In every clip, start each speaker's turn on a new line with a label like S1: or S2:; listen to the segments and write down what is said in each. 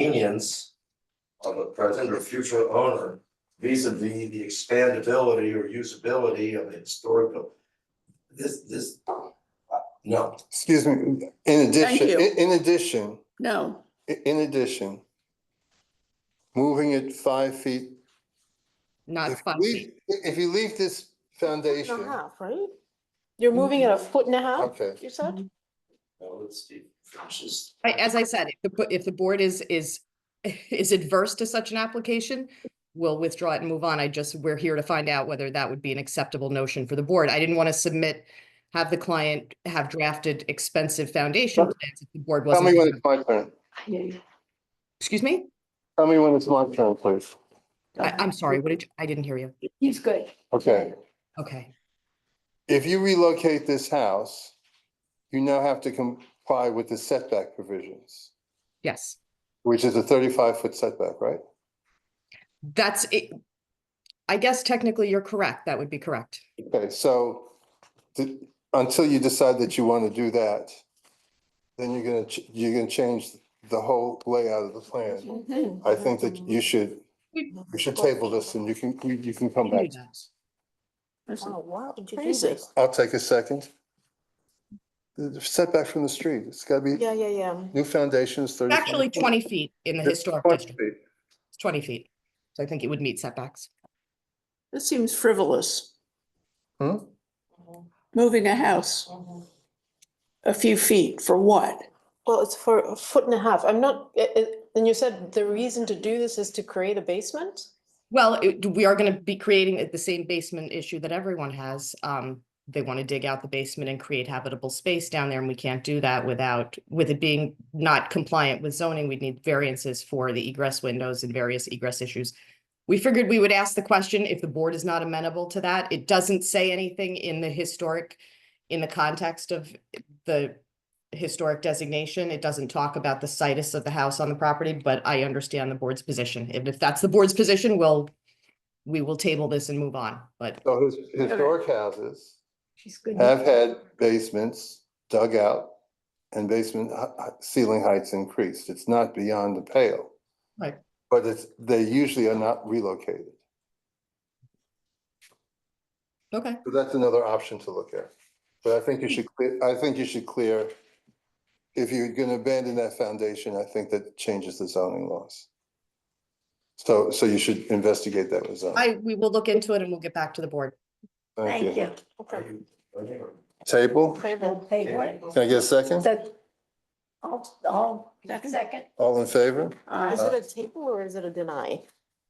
S1: convenience of a present or future owner vis a vis the expandability or usability of the historic. buil- This, this, uh, no,
S2: Excuse me, in addition,
S3: you.
S2: in in addition,
S3: No,
S2: i- in addition, moving it five feet.
S4: not
S2: if you
S4: five
S2: leave-
S4: feet.
S2: i- If you leave this
S5: Foot and a
S2: foundation,
S5: half, right? You're moving it a
S2: Mm-hmm.
S5: foot and a half,
S2: okay,
S5: you said?
S1: no, let's see, just.
S4: I- As I said, if the, bo- if the board is, is, is adverse to such an application, we'll withdraw it and move on. I just, we're here to find out whether that would be an acceptable notion for the board. I didn't want to submit, have the client have drafted expensive foundation plans if the board
S2: tell me when
S4: wasn't.
S2: it's my turn,
S4: Excuse me?
S2: tell me when it's my turn, please,
S4: I, I'm sorry, what did, you- I didn't hear you.
S5: He's good.
S2: okay.
S4: Okay,
S2: If you relocate this house, you now have to comply with the setback provisions,
S4: yes.
S2: which is a thirty-five foot setback, right?
S4: That's it. I guess technically you're correct. That would be correct.
S2: Okay, so th- until you decide that you want to do that, then you're gonna, ch- you're gonna change the whole layout of the plan.
S5: Mm-hmm.
S2: I think that you should, you Mm-hmm. should table this and you can, you you can come
S4: We can
S2: back.
S4: do that.
S5: Oh, wow,
S6: crazy.
S5: crazy.
S2: I'll take a second. The the setback from the street, it's gotta be,
S5: Yeah, yeah, yeah.
S2: new foundations, thirty.
S4: Actually, twenty feet in the historic district. It's twenty feet, so I think it would meet setbacks.
S5: This seems frivolous,
S2: Hmm?
S3: moving a house
S6: Mm-hmm.
S3: a few feet for what?
S5: Well, it's for a foot and a half. I'm not, i- i- and you said the reason to do this is to create a basement?
S4: Well, it- we are gonna be creating it- the same basement issue that everyone has. Um, they wanna dig out the basement and create habitable space down there, and we can't do that without, with it being not compliant with zoning, we'd need variances for the egress windows and various egress issues. We figured we would ask the question if the board is not amenable to that. It doesn't say anything in the historic, in the context of the historic designation. It doesn't talk about the situs of the house on the property, but I understand the board's position. And if that's the board's position, we'll, we will table this and move on, but
S2: So his- historic houses
S6: She's good.
S2: have had basements dug out and basement h- h- ceiling heights increased. It's not beyond the pale.
S4: Right.
S2: But it's, they usually are not relocated.
S4: okay.
S2: So that's another option to look at. But I think you should, clear. I think you should clear, if you're going to abandon that foundation, I think that changes the zoning laws. So, so you should investigate that with zoning.
S4: I, we will look into it and we'll get back to the board.
S6: Thank you.
S1: Are
S5: Okay.
S1: you, are you-
S2: Table,
S5: Favorable.
S6: Hey, what?
S2: can I get a second?
S6: So, I'll, I'll, second.
S2: All in favor?
S5: Is it a table or is it a deny?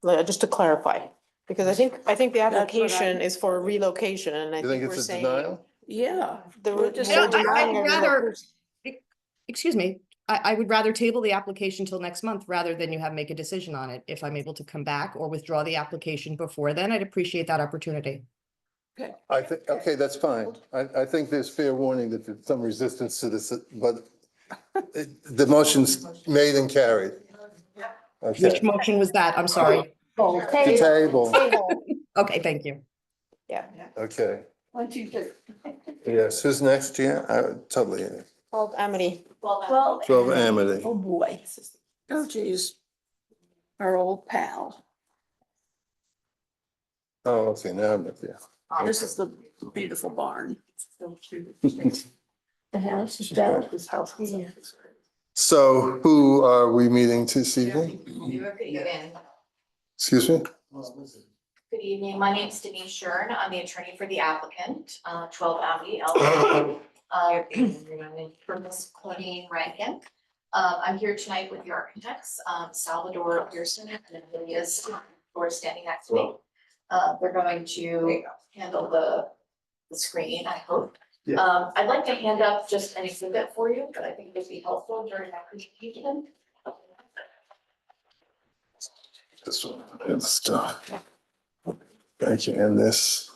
S5: Like, uh, just to clarify, because I think, I think the
S6: what I-
S5: application is for relocation and I
S2: You think
S5: think we're
S2: it's a
S5: saying.
S2: denial?
S6: Yeah.
S5: The
S6: We're
S5: re-
S6: just-
S5: we're
S4: No, I- I'd
S5: denying a
S4: rather-
S5: relocation.
S4: Excuse me, I, I would rather table the application till next month rather than you have, make a decision on it. If I'm able to come back or withdraw the application before then, I'd appreciate that opportunity.
S2: I think, okay, that's fine. I, I think there's fair warning that there's some resistance to this, but it- the motion's made and carried. Okay,
S4: Which motion was that? I'm sorry.
S6: Well,
S2: To table,
S6: table, table,
S4: Okay, thank you.
S2: okay.
S6: what you just.
S2: Yes, who's next here? I- Totally.
S5: Called Amity.
S6: Well.
S2: Twelve Amity.
S6: Oh, boy. Oh, geez. Our old pal.
S2: Oh, okay, now I'm with you.
S6: This is the beautiful barn. The house is down. This house.
S2: So who are we meeting this evening?
S7: Good evening.
S2: Excuse me?
S7: Good evening. My name is Denise Shern. I'm the attorney for the applicant, uh, twelve Abbey LLC. Uh, From Ms. Claudine Rankin. Uh, I'm here tonight with the architects, um, Salvador Pearson and Amelia Stein, who are standing next to me. Uh, They're going to handle the, the screen, I hope.
S1: Yeah.
S7: Um, I'd like to hand up just an exhibit for you, but I think it'd be helpful during that presentation.
S2: This one, good stuff. Thank you, and this.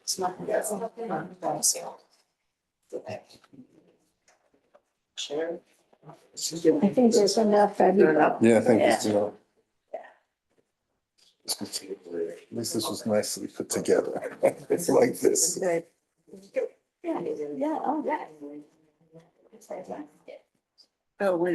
S7: It's not- it's not- it's not- Sure.
S6: I think there's enough. everybody.
S2: Yeah, thank you.
S6: Yeah.
S2: Sue. At least this was nicely put together. It's like this.
S6: oh, Yeah, yeah, all right.
S3: Oh, wait a